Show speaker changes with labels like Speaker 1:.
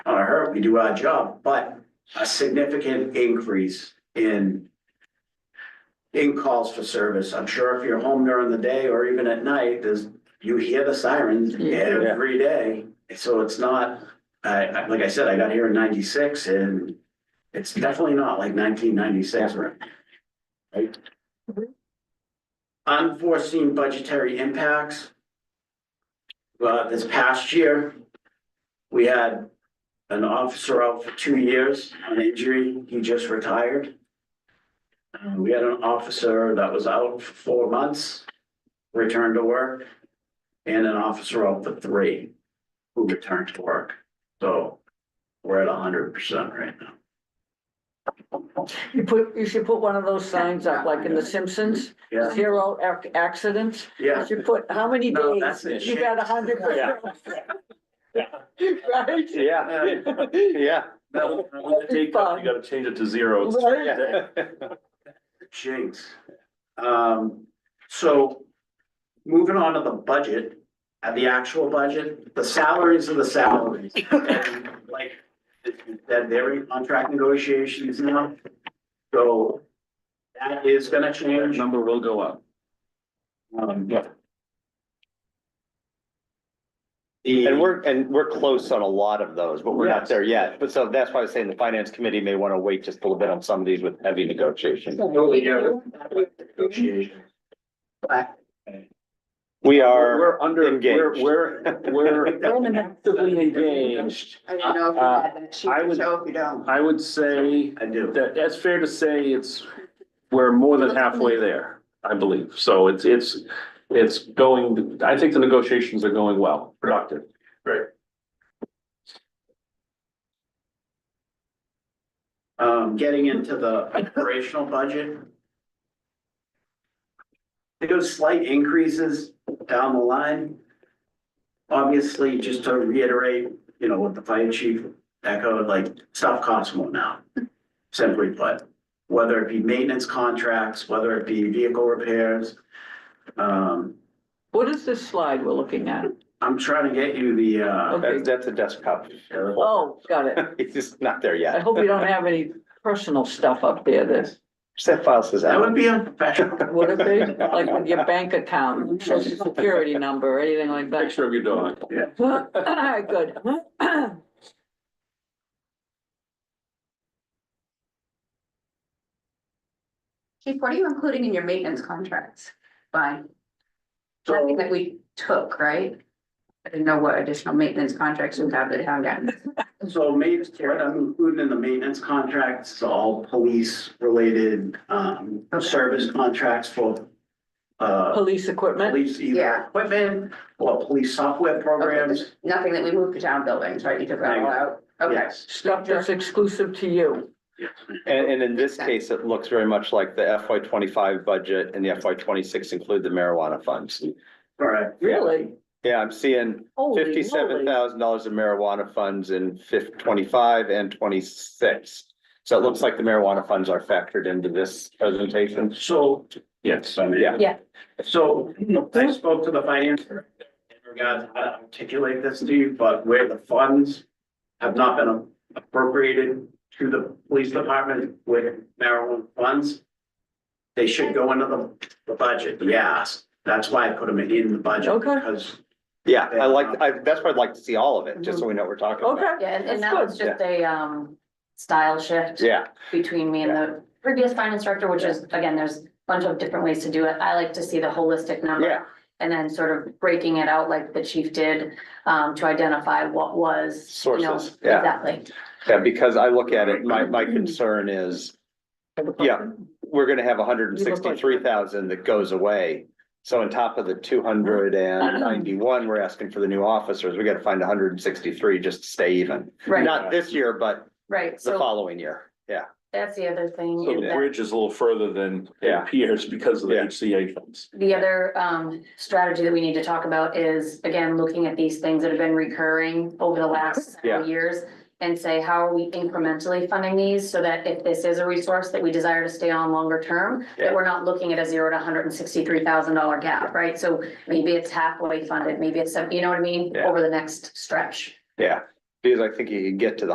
Speaker 1: we do our job, but a significant increase in in calls for service. I'm sure if you're home during the day or even at night, there's, you hear the sirens
Speaker 2: Yeah.
Speaker 1: every day. So it's not, I, I, like I said, I got here in ninety-six and it's definitely not like nineteen ninety-six, right? Right? Unforeseen budgetary impacts. Well, this past year, we had an officer out for two years on injury. He just retired. Uh, we had an officer that was out for four months, returned to work, and an officer out for three who returned to work. So we're at hundred percent right now.
Speaker 2: You put, you should put one of those signs up, like in The Simpsons,
Speaker 1: Yeah,
Speaker 2: zero ac- accidents.
Speaker 1: yeah.
Speaker 2: You should put, how many
Speaker 1: No, that's it.
Speaker 2: days? You got a hundred percent. Right?
Speaker 3: Yeah, yeah.
Speaker 1: No,
Speaker 2: That'd be fun.
Speaker 4: gotta change it to zero.
Speaker 2: Right?
Speaker 1: Jinx. Um, so moving on to the budget, uh, the actual budget, the salaries are the salaries. And Like, that they're in contract negotiations now. So that is gonna change.
Speaker 4: Number will go up.
Speaker 1: Um,
Speaker 4: Yeah.
Speaker 1: The-
Speaker 3: And we're, and we're close on a lot of those, but we're not there yet. But so that's why I was saying the finance committee may want to wait just a little bit on some of these with heavy negotiations.
Speaker 1: Negotiation.
Speaker 3: We are,
Speaker 4: We're under, we're,
Speaker 3: engaged.
Speaker 4: we're, we're actively engaged.
Speaker 5: I didn't know if you
Speaker 4: Uh,
Speaker 5: had that sheet,
Speaker 4: I would-
Speaker 5: so if you don't.
Speaker 4: I would say
Speaker 1: I do.
Speaker 4: that it's fair to say it's, we're more than halfway there, I believe. So it's, it's, it's going, I think the negotiations are going well, productive.
Speaker 1: Um, getting into the operational budget. There goes slight increases down the line. Obviously, just to reiterate, you know, what the fire chief echoed, like, stuff costs more now. Simply put, whether it be maintenance contracts, whether it be vehicle repairs. Um,
Speaker 2: What is this slide we're looking at?
Speaker 1: I'm trying to get you the, uh,
Speaker 3: that's, that's a desktop.
Speaker 2: Oh, got it.
Speaker 3: It's just not there
Speaker 2: I
Speaker 3: yet.
Speaker 2: hope you don't have any personal stuff up there that,
Speaker 3: Set file says
Speaker 1: that
Speaker 3: out.
Speaker 1: would be unprofessional.
Speaker 2: what if they, like with your bank account, social security number, or anything like that?
Speaker 4: Picture of your dog.
Speaker 2: Good.
Speaker 5: Chief, what are you including in your maintenance contracts? Fine, nothing
Speaker 1: So,
Speaker 5: that we took, right? I didn't know what additional maintenance contracts we have that have gotten.
Speaker 1: So maybe, what I'm including in the maintenance contracts, is all police related, um, service contracts for. Uh,
Speaker 2: Police equipment?
Speaker 1: police either
Speaker 5: Yeah.
Speaker 1: equipment or police software programs.
Speaker 5: Nothing that we moved to town buildings, right? You took that all out? Okay.
Speaker 1: Yes.
Speaker 2: Stuff that's exclusive to you.
Speaker 3: And, and in this case, it looks very much like the FY twenty-five budget and the FY twenty-six include the marijuana funds.
Speaker 1: Correct.
Speaker 2: Really?
Speaker 3: Yeah, I'm seeing
Speaker 2: Holy
Speaker 3: fifty-seven
Speaker 2: moly.
Speaker 3: thousand dollars in marijuana funds in fif- twenty-five and twenty-six. So it looks like the marijuana funds are factored into this presentation.
Speaker 1: So,
Speaker 4: Yes.
Speaker 3: Yeah.
Speaker 1: so I spoke to the finance director in regards to how to articulate this to you, but where the funds have not been appropriated to the police department with marijuana funds, they should go into the, the budget, yes. That's why I put them in the budget.
Speaker 2: Okay.
Speaker 1: Because
Speaker 3: Yeah, I like, I, that's why I'd like to see all of it, just so we know what we're talking about.
Speaker 2: Okay.
Speaker 6: Yeah, and-
Speaker 2: That's
Speaker 6: and that was
Speaker 3: good.
Speaker 6: just a um style shift
Speaker 3: Yeah,
Speaker 6: between me and the previous finance director, which is, again, there's a bunch of different ways to do it. I like to see the holistic number.
Speaker 3: Yeah.
Speaker 6: And then sort of breaking it out like the chief did um to identify what was, you know,
Speaker 3: Sources, yeah.
Speaker 6: exactly.
Speaker 3: yeah, because I look at it, my, my concern is Yeah. we're gonna have hundred and sixty-three thousand that goes away. So on top of the two hundred and ninety-one, we're asking for the new officers. We gotta find hundred and sixty-three just to stay even.
Speaker 6: Right,
Speaker 3: Not this year, but
Speaker 6: right.
Speaker 3: the
Speaker 6: So
Speaker 3: following year. Yeah,
Speaker 6: that's the other thing.
Speaker 4: So
Speaker 6: is
Speaker 4: the
Speaker 6: that-
Speaker 4: bridge is a little further than it
Speaker 3: Yeah.
Speaker 4: appears because of the
Speaker 3: Yeah.
Speaker 4: HCA funds.
Speaker 6: The other um strategy that we need to talk about is, again, looking at these things that have been recurring over the last
Speaker 3: Yeah.
Speaker 6: several years. And say, how are we incrementally funding these so that if this is a resource that we desire to stay on longer term,
Speaker 3: Yeah.
Speaker 6: that we're not looking at a zero to hundred and sixty-three thousand dollar gap, right? So maybe it's halfway funded, maybe it's, some- you know what I mean,
Speaker 3: Yeah.
Speaker 6: over the next stretch.
Speaker 3: yeah. Because I think you could get to the